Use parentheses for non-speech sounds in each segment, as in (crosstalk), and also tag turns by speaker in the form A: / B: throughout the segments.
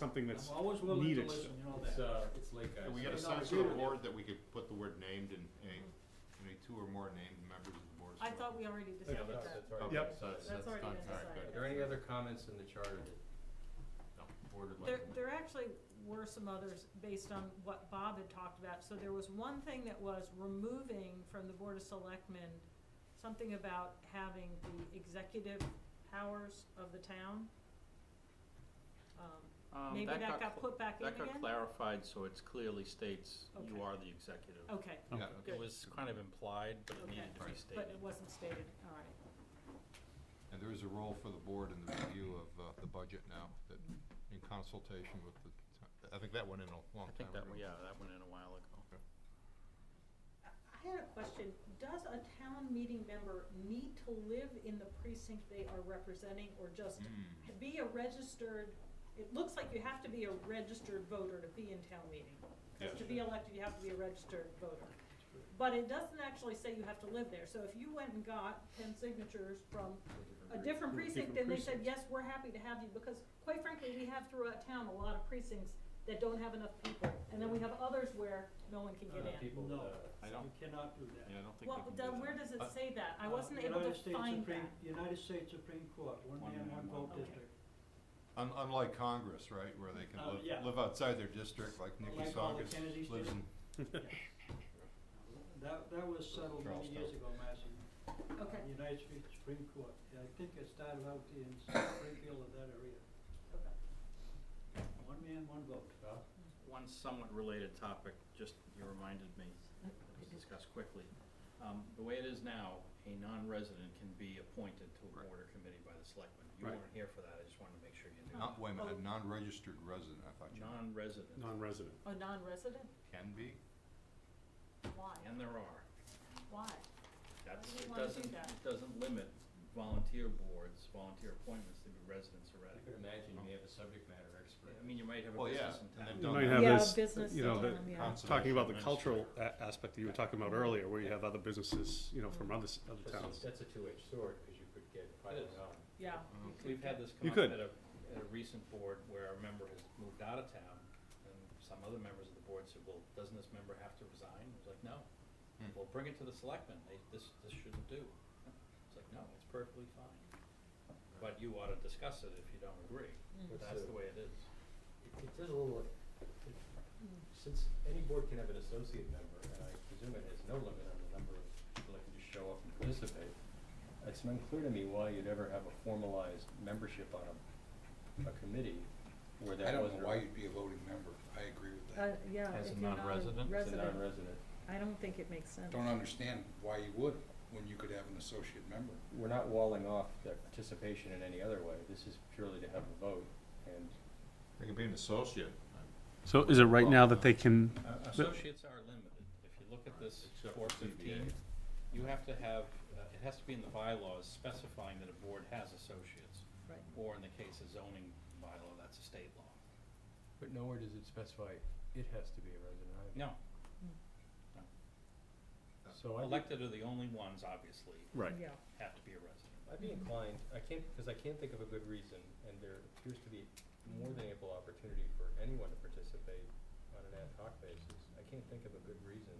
A: something that's
B: I'm always willing to
A: needed
B: listen,
A: still.
B: you know
C: It's,
B: that.
C: uh, it's late, guys.
D: Can we get a
B: No, I
D: sense
B: agree
D: of
B: with
D: the
B: you.
D: board that we could put the word named in a, in a two or more named members of the board?
E: I thought we already
C: Yeah,
E: decided
C: that's,
E: that.
C: that's already.
A: Yep.
D: So that's,
E: That's
D: that's
E: already
D: done,
E: been
D: alright,
E: decided.
C: Are
D: good.
C: there any other comments in the charter that, no, board would
E: There,
C: like? to make?
E: there actually were some others based on what Bob had talked about. So there was one thing that was removing from the Board of Selectmen, something about having the executive powers of the town. Um,
F: Um,
E: Maybe
F: that
E: that got
F: cl-
E: put back in
F: That
E: again?
F: got clarified, so it clearly states
E: Okay.
F: you are the executive.
E: Okay,
D: Yeah,
E: Good.
F: It was kind of implied, but it
E: Okay.
F: needed to be
D: Right.
F: stated.
E: but it wasn't stated, all right.
D: And there is a role for the board in the review of, uh, the budget now, that, in consultation with the, t- I think that went in a
F: I
D: long time
F: think
D: ago.
F: that, yeah, that went in a while ago.
E: I had a question. Does a town meeting member need to live in the precinct they are representing or just
D: Mm.
E: be a registered, it looks like you have to be a registered voter to be in town meeting. 'Cause to be elected, you have to be a registered voter. But it doesn't actually say you have to live there. So if you went and got ten signatures from a different precinct, then they said, yes, we're happy to have you, because quite frankly, we have throughout town a lot of precincts that don't have enough people. And then we have others where no one can get in.
C: People,
B: No.
C: uh,
D: I
B: You
D: don't-
B: cannot do that.
D: Yeah, I don't think
E: Well,
D: we can do
E: then
D: that.
E: where does it
D: Uh,
E: say that? I
B: Uh,
E: wasn't able to
B: United States
E: find that.
B: Supreme- United States Supreme Court, one
C: One
B: man,
C: man,
B: one
C: one
B: vote
E: vote.
B: district.
D: Un- unlike Congress, right, where they can
B: Uh, yeah.
D: live, live outside their district, like Nikki
B: Like all the
D: Saugus
B: Kennedys
D: lives
B: did.
D: in
B: That, that was settled many years
D: Charleston.
B: ago, Massey,
E: Okay,
B: the United States Supreme Court. I think it started out in Springfield or that area.
E: okay.
B: One man, one vote.
F: One somewhat related topic, just you reminded me, let's discuss quickly. Um, the way it is now, a non-resident can be appointed to a board or committee by the selectmen. You
D: Right.
F: weren't here for that, I just wanted to make sure you knew.
D: Not, wait a minute, a
E: Oh.
D: non-registered resident, I thought you meant.
F: Non-resident,
A: Non-resident.
E: A non-resident?
D: can be.
E: Why?
F: and there are.
E: Why?
F: That's,
E: Why do you
F: it
E: wanna do
F: doesn't,
E: that?
F: it doesn't limit volunteer boards, volunteer appointments to be residents
C: I
F: already.
C: could imagine you may have a subject matter expert.
F: I mean, you might have a
D: Well, yeah,
F: business in
D: and
F: town.
D: they've
A: You
D: done
A: might have
D: that.
E: Yeah,
A: this,
E: business
A: you know, the,
E: sometime, yeah.
A: talking
D: Conservation
A: about the
D: administrator.
A: cultural a- aspect that you were talking about earlier, where you have other businesses, you know, from other, s- other
C: That's
A: towns.
C: a- That's a two-edged sword, because you could get private
F: is.
C: realm.
D: Mm.
E: Yeah,
F: Uh-huh. We've had this
A: You
F: come
A: could.
F: up at a, at a recent board where a member has moved out of town, and some other members of the board said, well, doesn't this member have to resign? It was like, no.
D: Hmm.
F: Well, bring it to the selectmen, they, this, this shouldn't do. (laughs) It's like, no, it's perfectly fine. But you ought to discuss it if you don't agree,
E: Mm.
F: but
C: What's
F: that's
C: the-
F: the way it is.
C: It it does a little, it-
E: Mm.
C: since any board can have an associate member, and I presume it has no limit on the number of people that can just show up and participate, it's unclear to me why you'd ever have a formalized membership on a, a committee where
G: I
C: that
G: don't
C: wasn't.
G: know why you'd be a voting member. I agree with
E: uh,
G: that.
E: yeah,
F: As
E: if
F: a
E: you're not
F: non-resident? It's a
C: It's a non-resident.
E: I don't think it makes sense.
G: Don't understand why you would when you could have an associate member.
C: We're not walling off their participation in any other way. This is purely to have a vote, and
D: They could be an associate.
A: So is it right now that they can,
F: Uh, Associates are limited. If you look at this
D: Except
F: four
D: for
F: fifteen,
D: CBA.
F: you have to have, uh, it has to be in the bylaws specifying that a board has associates.
E: Right.
F: Or in the case of zoning bylaw, that's a state law.
C: But nowhere does it specify it has to be a resident either.
F: No,
C: So I think,
F: elected are the only ones, obviously,
A: right,
E: Yeah,
F: have to be a resident.
C: I'd be inclined, I can't, because I can't think of a good reason, and there appears to be more than ample opportunity for anyone to participate on an ad hoc basis. I can't think of a good reason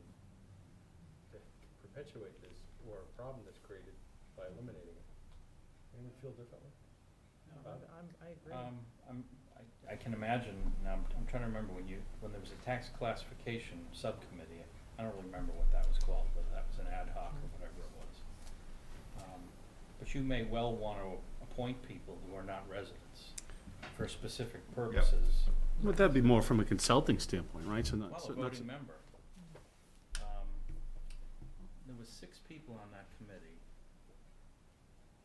C: to perpetuate this or a problem that's created by eliminating it. Anyone feel differently?
B: No,
C: Bob?
E: I agree.
F: Um, I'm, I, I can imagine, now, I'm, I'm trying to remember when you, when there was a tax classification subcommittee, I don't really remember what that was called, whether that was an ad hoc or whatever it was. Um, But you may well wanna appoint people who are not residents for specific purposes.
A: would that be more from a consulting standpoint, right? So not,
F: Well,
A: so
F: a
A: not,
F: voting member. Um, There was six people on that committee.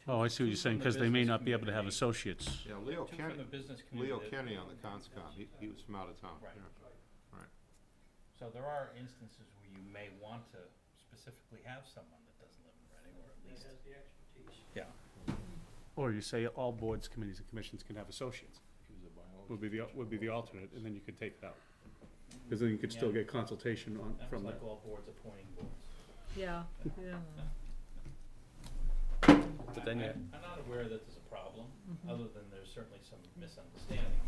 F: Two-
A: oh, I see
F: two
A: what you're saying,
F: from the
A: because they may
F: business
A: not be able to have
F: community,
A: associates.
D: Yeah, Leo
F: Two from the
D: Kenny,
F: business community.
D: Leo
F: that-
D: Kenny on the conscom, he, he was from out of town.
F: Right.
D: yeah.
F: So there are instances where you may want to specifically have someone that doesn't live in Reading, or at
B: That
F: least.
B: has the expertise.
F: Yeah.
A: Or you say all boards, committees, and commissions can have associates, would be the, would be the alternate, and then you could take it out. Because then you could still
F: Yeah.
A: get consultation on,
F: That's
A: from that.
F: like all boards appointing boards.
E: Yeah, yeah.
C: But then
F: I-
C: you-
F: I'm I'm not aware that there's a problem, other than there's certainly some misunderstanding